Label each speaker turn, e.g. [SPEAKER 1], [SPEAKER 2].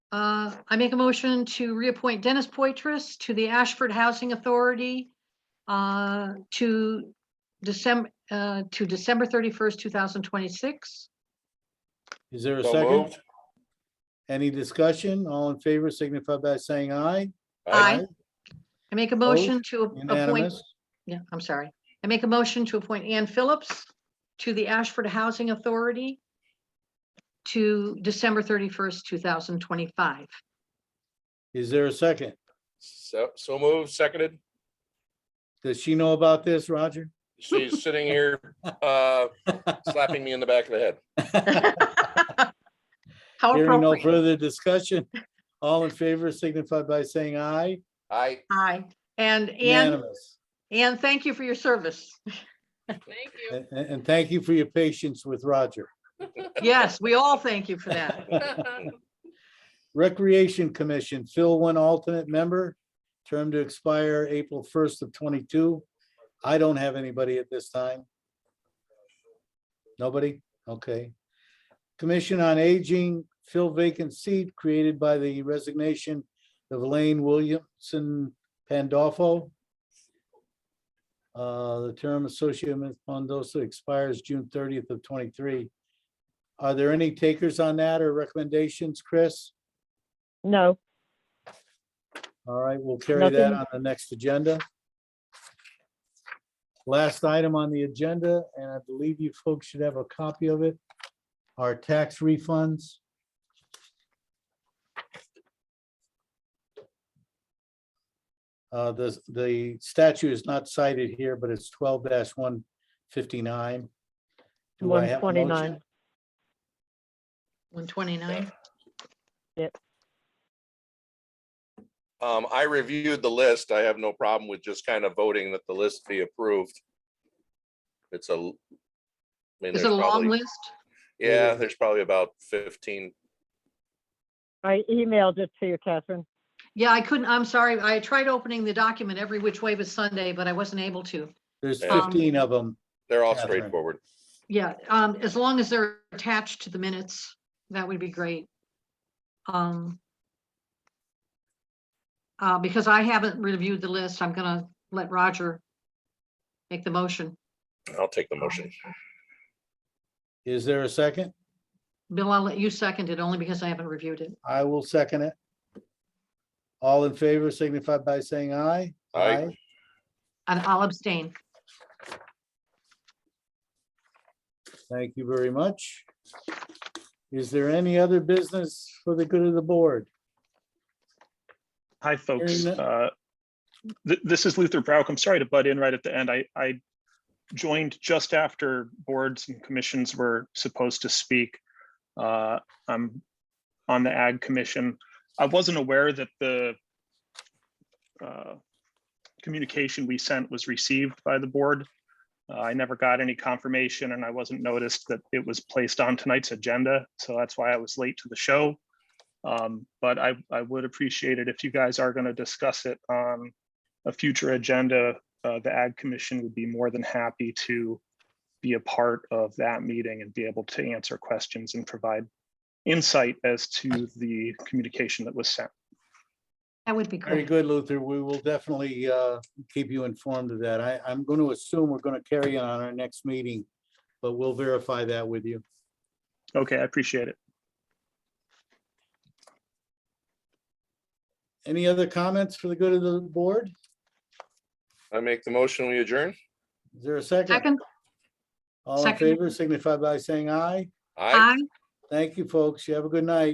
[SPEAKER 1] Uh, I make a motion to reappoint Dennis Poitras to the Ashford Housing Authority uh, to December, to December 31st, 2026.
[SPEAKER 2] Is there a
[SPEAKER 3] So
[SPEAKER 2] second?
[SPEAKER 3] moved.
[SPEAKER 2] Any discussion? All in favor signify by saying aye.
[SPEAKER 1] Aye. I make a
[SPEAKER 2] Opposed?
[SPEAKER 1] motion to appoint,
[SPEAKER 2] Unanimous.
[SPEAKER 1] yeah, I'm sorry. I make a motion to appoint Ann Phillips to the Ashford Housing Authority to December 31st, 2025.
[SPEAKER 2] Is there a second?
[SPEAKER 3] So, so moved, seconded.
[SPEAKER 2] Does she know about this, Roger?
[SPEAKER 3] She's sitting here, uh, slapping me in the back of the head.
[SPEAKER 1] How
[SPEAKER 2] Hearing no
[SPEAKER 1] appropriate.
[SPEAKER 2] further discussion. All in favor signify by saying aye.
[SPEAKER 3] I,
[SPEAKER 1] Aye. And Ann,
[SPEAKER 2] Unanimous.
[SPEAKER 1] Ann, thank you for your service.
[SPEAKER 4] Thank you.
[SPEAKER 2] And, and and thank you for your patience with Roger.
[SPEAKER 1] Yes, we all thank you for that.
[SPEAKER 2] Recreation Commission, Phil one alternate member, term to expire April first of twenty-two. I don't have anybody at this time. Nobody? Okay. Commission on Aging, fill vacant seat created by the resignation of Elaine Williamson Pandolfo. Uh, the term associate with Pondosa expires June thirtieth of twenty-three. Are there any takers on that or recommendations, Chris?
[SPEAKER 5] No,
[SPEAKER 2] All right, we'll carry that
[SPEAKER 5] Nothing.
[SPEAKER 2] on the next agenda. Last item on the agenda, and I believe you folks should have a copy of it, are tax refunds. Uh, the, the statute is not cited here, but it's twelve one fifty-nine. Do I
[SPEAKER 5] one
[SPEAKER 2] have a motion?
[SPEAKER 5] twenty-nine.
[SPEAKER 1] 129.
[SPEAKER 3] um, I reviewed the list. I have no problem with just kind of voting that the list be approved. It's a. I mean,
[SPEAKER 1] Is
[SPEAKER 3] there's
[SPEAKER 1] it a long
[SPEAKER 3] probably-
[SPEAKER 1] list?
[SPEAKER 3] Yeah, there's probably about fifteen.
[SPEAKER 5] I emailed it to you, Catherine.
[SPEAKER 1] Yeah, I couldn't, I'm sorry. I tried opening the document every which way but Sunday, but I wasn't able to.
[SPEAKER 2] There's
[SPEAKER 3] Um,
[SPEAKER 2] fifteen of them.
[SPEAKER 3] They're all
[SPEAKER 2] Catherine.
[SPEAKER 3] straightforward.
[SPEAKER 1] Yeah, um, as long as they're attached to the minutes, that would be great. Um. Uh, because I haven't reviewed the list, I'm gonna let Roger make the motion.
[SPEAKER 3] I'll take the motion.
[SPEAKER 2] Is there a second?
[SPEAKER 1] Bill, I'll let you second it only because I haven't reviewed it.
[SPEAKER 2] I will second it. All in favor signify by saying aye.
[SPEAKER 3] Aye.
[SPEAKER 1] And I'll abstain.
[SPEAKER 2] Thank you very much. Is there any other business for the good of the board?
[SPEAKER 6] Hi, folks.
[SPEAKER 2] none.
[SPEAKER 6] Uh, th- This is Luther Brauk. I'm sorry to butt in right at the end. I, I joined just after boards and commissions were supposed to speak. Uh, I'm on the Ag Commission. I wasn't aware that the uh, communication we sent was received by the board. Uh, I never got any confirmation and I wasn't noticed that it was placed on tonight's agenda. So that's why I was late to the show. Um, but I, I would appreciate it if you guys are gonna discuss it on a future agenda. Uh, the Ag Commission would be more than happy to be a part of that meeting and be able to answer questions and provide insight as to the communication that was sent.
[SPEAKER 1] That would be
[SPEAKER 2] Very
[SPEAKER 1] great.
[SPEAKER 2] good, Luther. We will definitely uh, keep you informed of that. I, I'm going to assume we're going to carry on our next meeting, but we'll verify that with you.
[SPEAKER 6] Okay, I appreciate it.
[SPEAKER 2] Any other comments for the good of the board?
[SPEAKER 3] I make the motion, we adjourn.
[SPEAKER 2] Is there a second?
[SPEAKER 1] Second,
[SPEAKER 2] All in
[SPEAKER 1] second.
[SPEAKER 2] favor signify by saying aye.
[SPEAKER 3] Aye.
[SPEAKER 1] aye.
[SPEAKER 2] Thank you, folks. You have a good night.